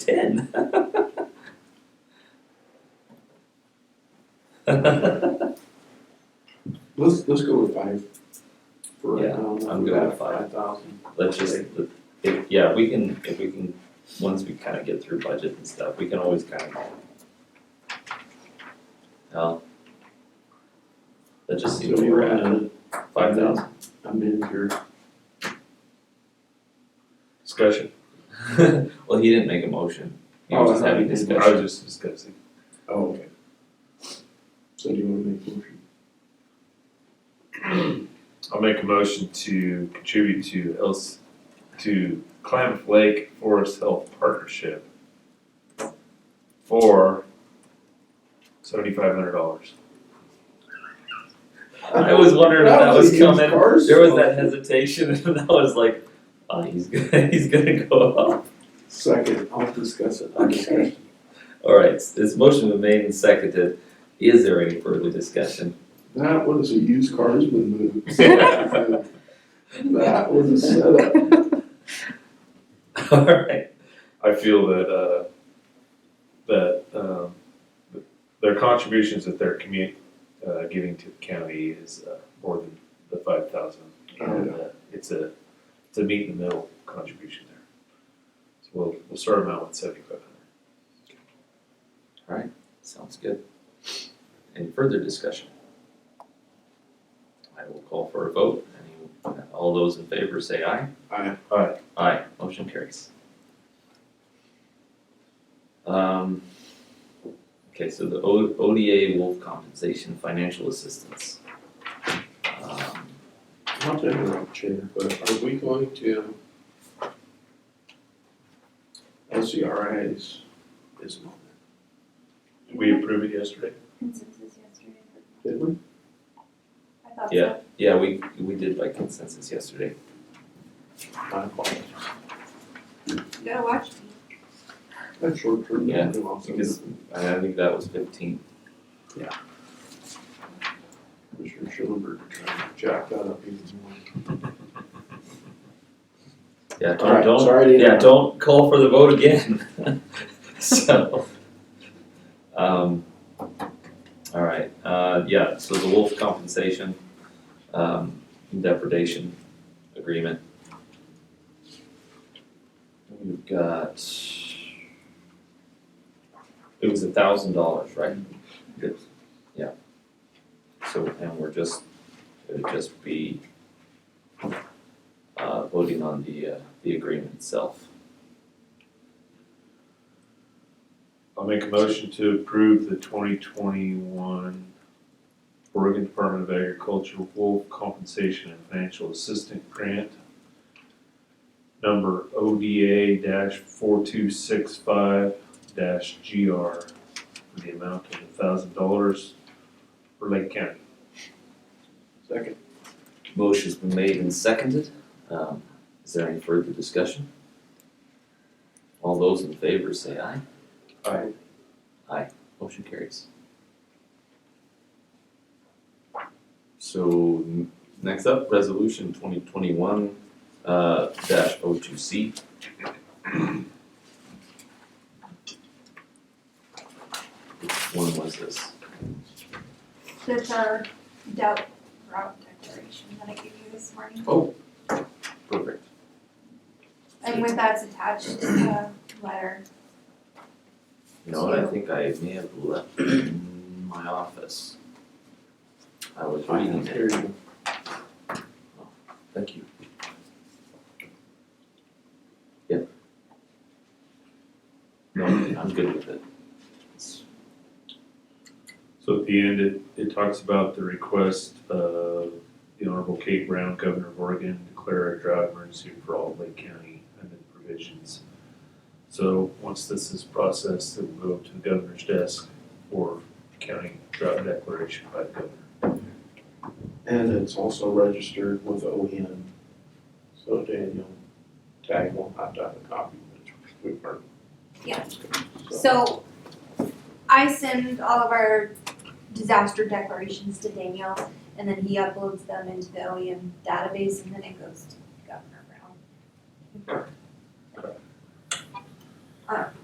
ten. Let's, let's go with five. For right Yeah, now. I'm good with five. Five thousand. Let's just, if, yeah, we can, if we can, once we kind of get through budget and stuff, we can always kind of. Well. That just seems So where we're at, in. five thousand. I'm in here. Discussion. Well, he didn't make a motion, he Oh, was just I thought having he did. I discussion. was just discussing. Oh, okay. So do you wanna make a motion? I'll make a motion to contribute to else to Climate Lake Forest Health Partnership for seventy-five hundred dollars. I was wondering if that was coming, there Cars? Oh, was that hesitation, and I was like, oh, he's gonna, he's gonna go up. Second, I'll discuss it. I'll Okay. discuss it. All right, this motion been made and seconded. Is there any further discussion? That was a used cars been moved. That All was a setup. right, I feel that, uh, that, um, their contributions that they're commu- uh, giving to the county is, uh, more than the five thousand. And, uh, it's a, it's a meet in the middle contribution there. So we'll, we'll start them out with seventy-five hundred. sounds good. Any further discussion? I will call for a vote. Any, all those in favor say aye. Aye. Aye. Aye, motion carries. Um, okay, so the O- ODA wolf compensation financial assistance. Um, Not to interrupt, Chair, but are we going to? LCRIs is not, We approved it yesterday. consensus yesterday. did we? I thought so. Yeah. Yeah, we, we did by consensus yesterday. My apologies. You gotta watch me. That's short term. Yeah, memory loss. Because I think that was fifteen. Commissioner Schulenberg trying to jack that up even more. Yeah, All don't, right, don't, sorry to yeah, interrupt. don't call for the vote again. So, um, all right, uh, yeah, so the wolf compensation, um, depredation agreement. We've got, it was a thousand dollars, right? Yes. Yeah. So, and we're just, it'd just be uh, voting on the, uh, the agreement itself. I'll make a motion to approve the twenty twenty-one Oregon Department of Agriculture Wolf Compensation and Financial Assistance Grant number ODA four two six five GR for the amount of thousand dollars for Lake County. Second. Motion's been made and seconded. Um, is there any further discussion? All those in favor say aye. Aye. Motion carries. So n- next up, resolution twenty twenty-one, uh, dash O two C. Which one was this? That's our doubt route declaration that I gave you this morning. Perfect. And with that's attached, uh, letter. You know, what, I think I may have left it in my office. I was reading it, Here you thank you. Yeah. No, I'm good with it. It's- So at the end, it, it talks about the request of the Honorable Kate Brown, Governor of Oregon, declare a drought emergency for all of Lake County and the provisions. So once this is processed, it will go to the governor's desk for county drought declaration by the governor. go. And it's also registered with OEM. So Daniel, tag won't have to have a copy, but we are. Yeah. So I send all of our disaster declarations to Daniel and then he uploads them into the OEM database and then it goes to Governor Brown.